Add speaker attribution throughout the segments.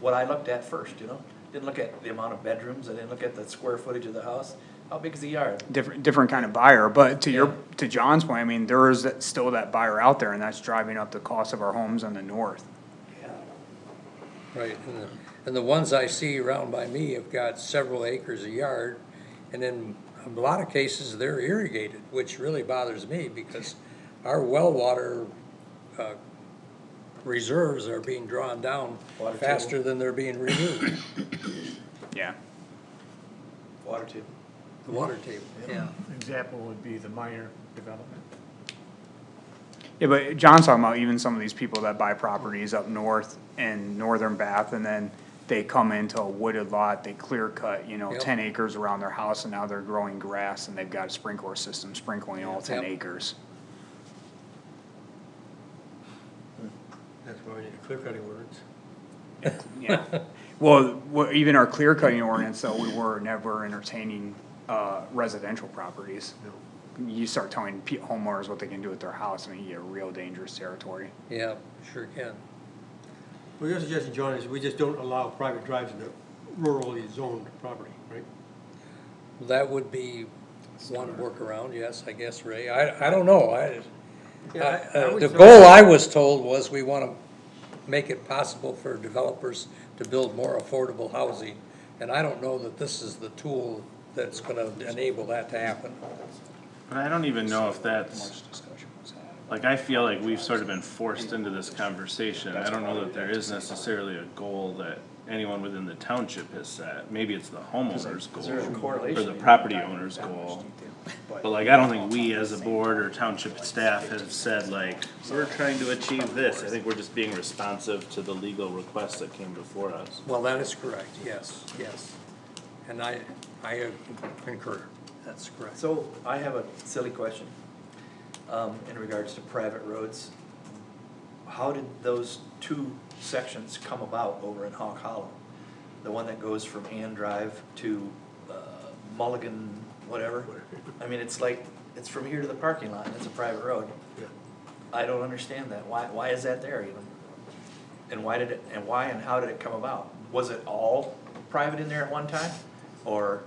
Speaker 1: what I looked at first, you know? Didn't look at the amount of bedrooms, I didn't look at the square footage of the house, how big is the yard?
Speaker 2: different, different kind of buyer, but to your,
Speaker 1: Yeah.
Speaker 2: to John's point, I mean, there is that- still that buyer out there, and that's driving up the cost of our homes on the north.
Speaker 3: Right, and the, and the ones I see around by me have got several acres a yard, and in a lot of cases, they're irrigated, which really bothers me, because our well water, uh, reserves are being drawn down
Speaker 1: Water table.
Speaker 3: faster than they're being renewed,
Speaker 2: Yeah,
Speaker 1: Water table.
Speaker 3: the water table, yeah.
Speaker 4: Example would be the minor development.
Speaker 2: yeah, but John's talking about even some of these people that buy properties up north in northern Bath, and then they come into a wooded lot, they clear cut, you know,
Speaker 3: Yep.
Speaker 2: ten acres around their house, and now they're growing grass, and they've got a sprinkler system sprinkling all ten
Speaker 3: Yep.
Speaker 2: acres.
Speaker 3: That's why we need clear cutting words.
Speaker 2: Yeah, well, wha- even our clear cutting ordinance, though, we were never entertaining uh, residential properties. You start telling pe- homeowners what they can do with their house, I mean, you get real dangerous territory.
Speaker 3: Yeah, sure can,
Speaker 5: Well, your suggestion, John, is we just don't allow private drives in the rurally zoned property, right?
Speaker 3: that would be one workaround, yes, I guess, Ray, I, I don't know, I,
Speaker 5: Yeah, I- I
Speaker 3: Uh,
Speaker 5: would
Speaker 3: The
Speaker 5: say-
Speaker 3: goal I was told was we want to make it possible for developers to build more affordable housing. And I don't know that this is the tool that's going to enable that to happen.
Speaker 6: But I don't even know if that's,
Speaker 2: Much discussion was had.
Speaker 6: like, I feel like we've sort of been forced into this conversation. I don't know that there is necessarily a goal that anyone within the township has set. Maybe it's the homeowner's
Speaker 1: Is there a
Speaker 6: goal or
Speaker 1: correlation?
Speaker 6: the property owner's goal. But like, I don't think we as a board or township staff have said like, we're trying to achieve this. I think we're just being responsive to the legal requests that came before us.
Speaker 3: Well, that is correct, yes, yes. And I, I concur, that's correct.
Speaker 1: So I have a silly question, um, in regards to private roads. How did those two sections come about over in Hawk Hollow? The one that goes from Ann Drive to, uh, Mulligan, whatever? I mean, it's like, it's from here to the parking lot, and it's a private road. I don't understand that, why, why is that there even? And why did it, and why and how did it come about? Was it all private in there at one time, or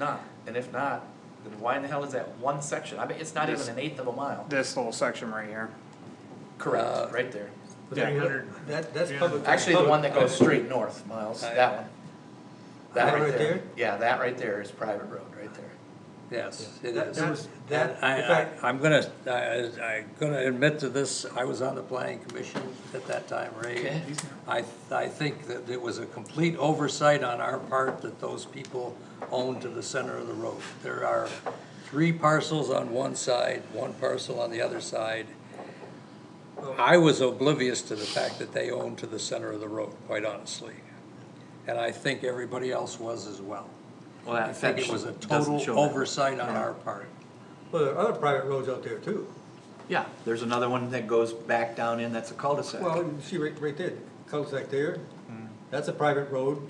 Speaker 1: not? And if not, then why in the hell is that one section? I mean, it's not even an eighth of a mile.
Speaker 2: This little section right here,
Speaker 3: Uh,
Speaker 1: Correct, right there.
Speaker 4: Three hundred,
Speaker 5: That, that's
Speaker 4: Yeah.
Speaker 5: public.
Speaker 1: Actually, the one that goes straight north, Miles, that one. That right there. Yeah, that right there is private road, right there.
Speaker 3: Yes, it
Speaker 5: That-
Speaker 3: is.
Speaker 5: that was- that-
Speaker 3: And I-
Speaker 5: in fact-
Speaker 3: I, I'm gonna, I, I- I'm gonna admit to this, I was on the planning commission at that time, Ray.
Speaker 1: Okay.
Speaker 3: I, I think that it was a complete oversight on our part that those people owned to the center of the road. There are three parcels on one side, one parcel on the other side. I was oblivious to the fact that they owned to the center of the road, quite honestly. And I think everybody else was as well.
Speaker 1: Well,
Speaker 3: I think it was a total oversight on our part.
Speaker 5: Well, there are other private roads out there too.
Speaker 1: Yeah, there's another one that goes back down in, that's a cul-de-sac.
Speaker 5: Well, you see right, right there, cul-de-sac there, that's a private road.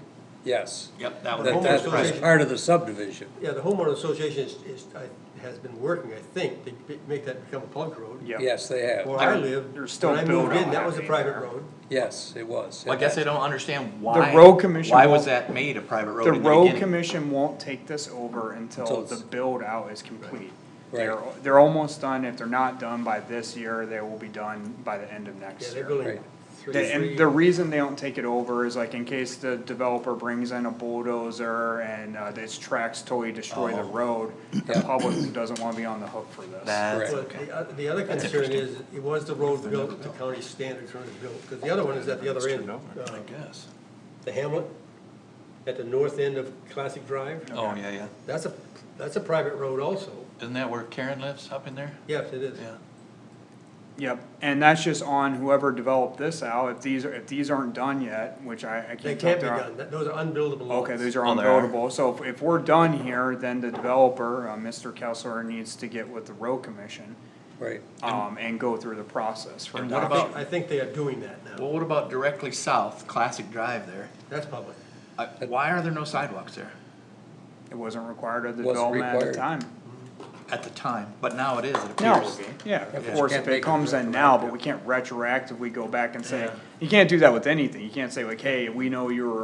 Speaker 3: Yes.
Speaker 1: Yep, that
Speaker 3: That,
Speaker 5: Homeowner
Speaker 3: that was
Speaker 5: association.
Speaker 3: part of the subdivision.
Speaker 5: Yeah, the homeowner association is, is, I- has been working, I think, to b- make that become a public road.
Speaker 2: Yep.
Speaker 3: Yes, they
Speaker 5: Where
Speaker 3: have.
Speaker 5: I
Speaker 2: There's
Speaker 5: lived,
Speaker 2: still
Speaker 5: when I moved
Speaker 2: build-out
Speaker 5: in, that was a
Speaker 2: happening
Speaker 5: private
Speaker 2: there.
Speaker 5: road.
Speaker 3: Yes, it was.
Speaker 7: Well, I guess I don't understand why.
Speaker 2: The road commission
Speaker 7: Why
Speaker 2: won't-
Speaker 7: was that made a private road
Speaker 2: the
Speaker 7: in the
Speaker 2: road
Speaker 7: beginning?
Speaker 2: commission won't take this over until
Speaker 3: Until
Speaker 2: the
Speaker 3: it's-
Speaker 2: build out is complete.
Speaker 3: Right.
Speaker 2: They're, they're almost done, if they're not done by this year, they will be done by the end of
Speaker 5: Yeah,
Speaker 2: next year.
Speaker 5: they're building
Speaker 3: Right.
Speaker 5: three.
Speaker 2: They- And the reason they don't take it over is like in case the developer brings in a bulldozer and uh, this tracks totally destroy the road, the
Speaker 3: Yeah.
Speaker 2: public doesn't wanna be on the hook for this.
Speaker 7: That's
Speaker 5: Well,
Speaker 3: Correct.
Speaker 7: okay.
Speaker 5: the oth- the other concern is, it was the road built to county standards when it was built, because the other one is at the other end. uh,
Speaker 7: guess.
Speaker 5: The hamlet, at the north end of Classic Drive,
Speaker 7: Oh, yeah, yeah.
Speaker 5: that's a, that's a private road also.
Speaker 7: Isn't that where Karen lives up in there?
Speaker 5: Yes, it is.
Speaker 7: Yeah.
Speaker 2: Yep, and that's just on whoever developed this out, if these, are if these aren't done yet, which I, I
Speaker 5: They
Speaker 2: can't tell.
Speaker 5: can't
Speaker 2: if
Speaker 5: be
Speaker 2: they're-
Speaker 5: done, That- those are unbuildable lots.
Speaker 2: Okay, these are
Speaker 7: Oh, they are.
Speaker 2: unbuildable, so if, if we're done here, then the developer, uh, Mr. Kessler needs to get with the road commission,
Speaker 3: Right.
Speaker 2: um, and go through the process for
Speaker 7: And what
Speaker 5: I
Speaker 2: adoption.
Speaker 7: about-
Speaker 5: think, I think they are doing that now.
Speaker 7: Well, what about directly south, Classic Drive there?
Speaker 5: That's public.
Speaker 7: Uh, Why are there no sidewalks there
Speaker 2: It wasn't required of the
Speaker 3: Wasn't
Speaker 2: development at the
Speaker 3: required.
Speaker 2: time.
Speaker 7: at the time? But now it is, it
Speaker 2: No,
Speaker 7: appears.
Speaker 2: yeah, of
Speaker 3: Yeah.
Speaker 2: course,
Speaker 3: Can't
Speaker 2: if
Speaker 3: make
Speaker 2: it
Speaker 3: it
Speaker 2: comes in now, but we can't retroactively go back and say, You can't do that with anything. You can't say like, hey, we know you were